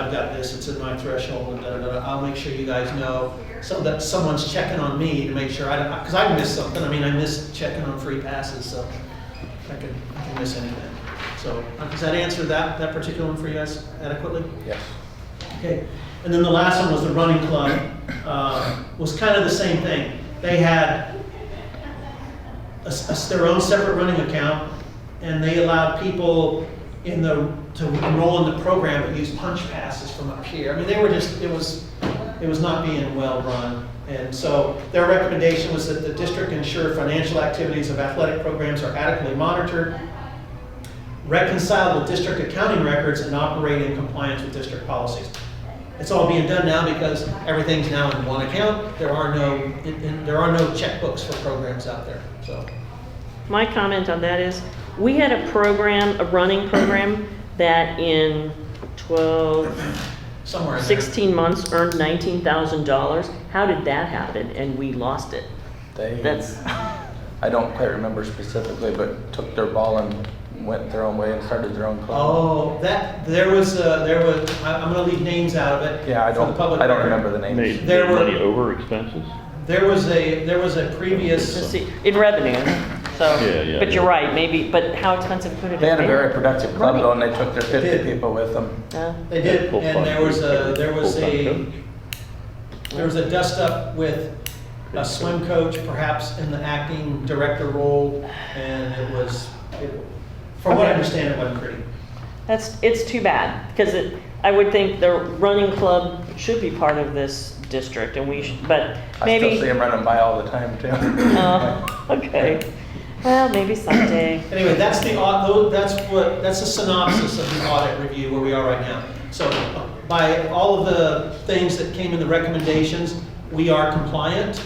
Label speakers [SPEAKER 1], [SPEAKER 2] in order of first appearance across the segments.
[SPEAKER 1] I've got this, it's in my threshold, and da, da, da, I'll make sure you guys know, so that someone's checking on me to make sure I don't, because I missed something, I mean, I missed checking on free passes, so I could, I can miss anything. So, uh, does that answer that, that particular one for you guys adequately?
[SPEAKER 2] Yes.
[SPEAKER 1] Okay, and then the last one was the running club, uh, was kind of the same thing. They had a s- a s- their own separate running account, and they allowed people in the, to enroll in the program but use punch passes from up here. I mean, they were just, it was, it was not being well-run. And so their recommendation was that the district ensure financial activities of athletic programs are adequately monitored, reconcile with district accounting records and operate in compliance with district policies. It's all being done now because everything's now in one account. There are no, and- and there are no checkbooks for programs out there, so.
[SPEAKER 3] My comment on that is, we had a program, a running program, that in 12,
[SPEAKER 1] Somewhere in there.
[SPEAKER 3] 16 months earned $19,000. How did that happen? And we lost it.
[SPEAKER 2] They,
[SPEAKER 3] That's,
[SPEAKER 2] I don't quite remember specifically, but took their ball and went their own way and started their own club.
[SPEAKER 1] Oh, that, there was, uh, there was, I- I'm gonna leave names out of it.
[SPEAKER 2] Yeah, I
[SPEAKER 1] for the
[SPEAKER 2] don't,
[SPEAKER 1] public
[SPEAKER 2] I don't
[SPEAKER 1] record.
[SPEAKER 2] remember the
[SPEAKER 4] Made
[SPEAKER 2] names.
[SPEAKER 1] There
[SPEAKER 4] made
[SPEAKER 1] were-
[SPEAKER 4] money over expenses?
[SPEAKER 1] There was a, there was a
[SPEAKER 3] let's
[SPEAKER 1] previous,
[SPEAKER 3] see, in revenue, so,
[SPEAKER 4] Yeah, yeah,
[SPEAKER 3] but you're
[SPEAKER 4] yeah.
[SPEAKER 3] right, maybe, but how expensive could it have been?
[SPEAKER 2] They had a very productive club though, and they took their
[SPEAKER 1] They did.
[SPEAKER 2] fifty people with them.
[SPEAKER 3] Uh,
[SPEAKER 1] they did,
[SPEAKER 4] Full-time
[SPEAKER 1] and there was a,
[SPEAKER 4] coach,
[SPEAKER 1] there was a,
[SPEAKER 4] full-time
[SPEAKER 1] there was a dust-up with a swim coach, perhaps in the acting director role, and it was, it- from what I understand, it wasn't pretty.
[SPEAKER 3] That's, it's too bad, because it, I would think the running club should be part of this district, and we, should but
[SPEAKER 2] I
[SPEAKER 3] maybe.
[SPEAKER 2] still see them running by all the time too.
[SPEAKER 3] Oh, okay. Well, maybe someday.
[SPEAKER 1] Anyway, that's the, au- tho- that's what, that's a synopsis of the audit review where we are right now. So by all of the things that came in the recommendations, we are compliant.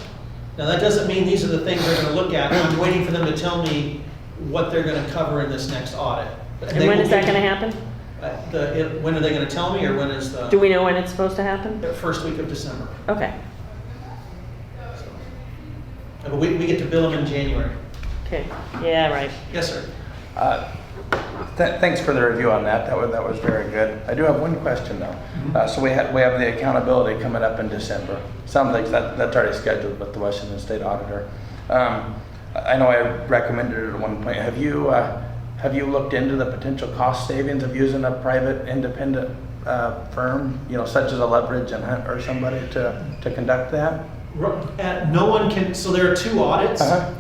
[SPEAKER 1] Now, that doesn't mean these are the things they're gonna look at. I'm waiting for them to tell me what they're gonna cover in this next audit.
[SPEAKER 3] And when is that gonna happen?
[SPEAKER 1] happen? uh, The, it- when are they gonna tell me, or when is
[SPEAKER 3] Do
[SPEAKER 1] the,
[SPEAKER 3] we know when it's supposed to happen?
[SPEAKER 1] the first week of December?
[SPEAKER 3] Okay,
[SPEAKER 1] Uh, But we, we get to bill them in January.
[SPEAKER 3] okay, yeah, right.
[SPEAKER 1] Yes, sir.
[SPEAKER 2] Uh, th- Thanks for the review on that. That was, that was very good. I do have one question though. Uh, So we have, we have the accountability coming up in December. Sounds like that, that's already scheduled with the Washington State Auditor. Um, I I know I recommended it at one point. Have you, uh, have you looked into the potential cost savings of using a private independent uh, firm, you know, such as a Leverage and Hunt or somebody to, to conduct that?
[SPEAKER 1] Ru- uh, No one can, so there are two audits.
[SPEAKER 2] Uh-huh.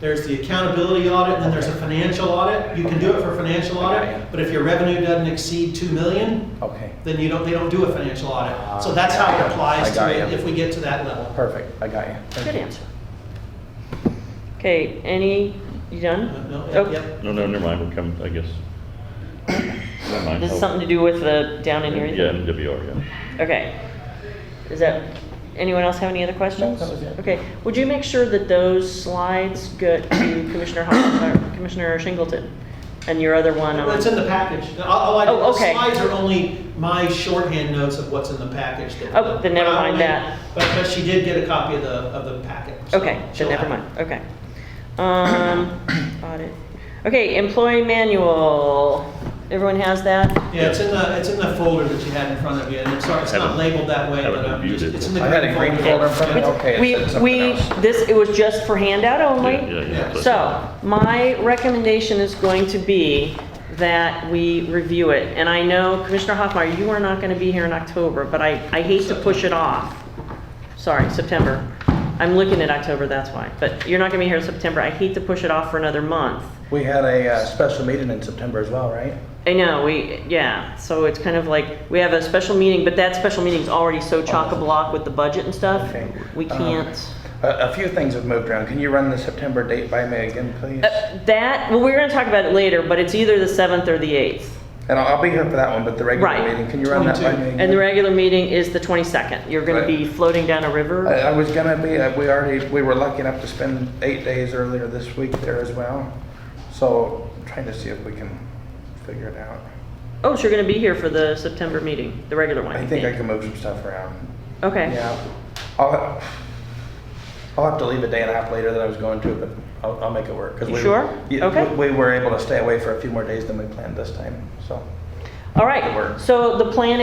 [SPEAKER 1] There's the accountability audit, and then there's a financial audit. You can do it for financial
[SPEAKER 2] Okay, yeah.
[SPEAKER 1] audit, but if your revenue doesn't exceed two million,
[SPEAKER 2] Okay,
[SPEAKER 1] then you don't, they don't do a financial audit. So that's how it applies
[SPEAKER 2] I got
[SPEAKER 1] to it,
[SPEAKER 2] you.
[SPEAKER 1] if we get to that level.
[SPEAKER 2] perfect. I got you. Thank
[SPEAKER 3] Good
[SPEAKER 2] you.
[SPEAKER 3] answer. Okay, any, you
[SPEAKER 2] Uh,
[SPEAKER 3] done?
[SPEAKER 1] No,
[SPEAKER 3] Oh,
[SPEAKER 1] no, yep.
[SPEAKER 4] No, no, never mind, we're coming, I guess. Never mind.
[SPEAKER 3] This is something to do with the down in here?
[SPEAKER 4] Yeah, MWR, Oh. yeah.
[SPEAKER 3] Okay. Is that, anyone else have any other questions?
[SPEAKER 2] No, that was it.
[SPEAKER 3] Okay, would you make sure that those slides go to Commissioner Hall, or Commissioner Shingleton? And your other one on?
[SPEAKER 1] It's in the package. All all I,
[SPEAKER 3] Oh,
[SPEAKER 1] the
[SPEAKER 3] okay.
[SPEAKER 1] slides are only my shorthand notes of what's in the package. that-
[SPEAKER 3] Oh, then never
[SPEAKER 1] but I
[SPEAKER 3] mind
[SPEAKER 1] only-
[SPEAKER 3] that.
[SPEAKER 1] But, but she did get a copy of the, of the packet. so
[SPEAKER 3] Okay,
[SPEAKER 1] she'll
[SPEAKER 3] then never
[SPEAKER 1] have it.
[SPEAKER 3] mind, okay. Um, audit. Okay, employee manual. Everyone has that?
[SPEAKER 1] Yeah, it's in the, it's in the folder that you had in front of you, and I'm sorry, it's not
[SPEAKER 4] Haven't-
[SPEAKER 1] labeled that way,
[SPEAKER 4] haven't
[SPEAKER 1] but I'm
[SPEAKER 4] reviewed
[SPEAKER 1] just,
[SPEAKER 4] it.
[SPEAKER 1] it's in the
[SPEAKER 2] I had
[SPEAKER 1] green
[SPEAKER 2] a
[SPEAKER 1] folder.
[SPEAKER 2] green folder in front of me.
[SPEAKER 3] It's-
[SPEAKER 2] Okay, it
[SPEAKER 3] We,
[SPEAKER 2] said something
[SPEAKER 3] we,
[SPEAKER 2] else.
[SPEAKER 3] this, it was just for handout
[SPEAKER 4] Yeah,
[SPEAKER 3] only.
[SPEAKER 4] yeah, yeah.
[SPEAKER 3] So, my recommendation is going to be that we review it. And I know Commissioner Hoffmeyer, you are not gonna be here in October, but I, I hate to push it off. Sorry, September. I'm looking at October, that's why. But you're not gonna be here in September. I hate to push it off for another month.
[SPEAKER 2] We had a uh, special meeting in September as well, right?
[SPEAKER 3] I know, we, yeah, so it's kind of like, we have a special meeting, but that special meeting's already so chock-a-block with the budget and stuff.
[SPEAKER 2] Oh, Okay.
[SPEAKER 3] We
[SPEAKER 2] Um,
[SPEAKER 3] can't,
[SPEAKER 2] A, a few things have moved around. Can you run the September date by me again, please?
[SPEAKER 3] Uh, that, well, we're gonna talk about it later, but it's either the seventh or the eighth.
[SPEAKER 2] And I'll, I'll be here for that one, but the regular
[SPEAKER 3] Right.
[SPEAKER 2] meeting, can you run that by
[SPEAKER 1] 22.
[SPEAKER 2] me again?
[SPEAKER 3] And the regular meeting is the twenty-second. You're gonna be floating down a river.
[SPEAKER 2] I, I was gonna be, uh, we already, we were lucky enough to spend eight days earlier this week there as well. So trying to see if we can figure it out.
[SPEAKER 3] Oh, so you're gonna be here for the September meeting, the regular one,
[SPEAKER 2] I
[SPEAKER 3] you
[SPEAKER 2] think I
[SPEAKER 3] think?
[SPEAKER 2] can move some stuff around.
[SPEAKER 3] Okay,
[SPEAKER 2] Yeah. I'll, I'll have to leave a day and a half later than I was going to, but I'll, I'll make it work. 'cause
[SPEAKER 3] You
[SPEAKER 2] we-
[SPEAKER 3] sure?
[SPEAKER 2] yeah,
[SPEAKER 3] Okay.
[SPEAKER 2] We we were able to stay away for a few more days than we planned this time, so.
[SPEAKER 3] all
[SPEAKER 2] It
[SPEAKER 3] right.
[SPEAKER 2] works.
[SPEAKER 3] So the plan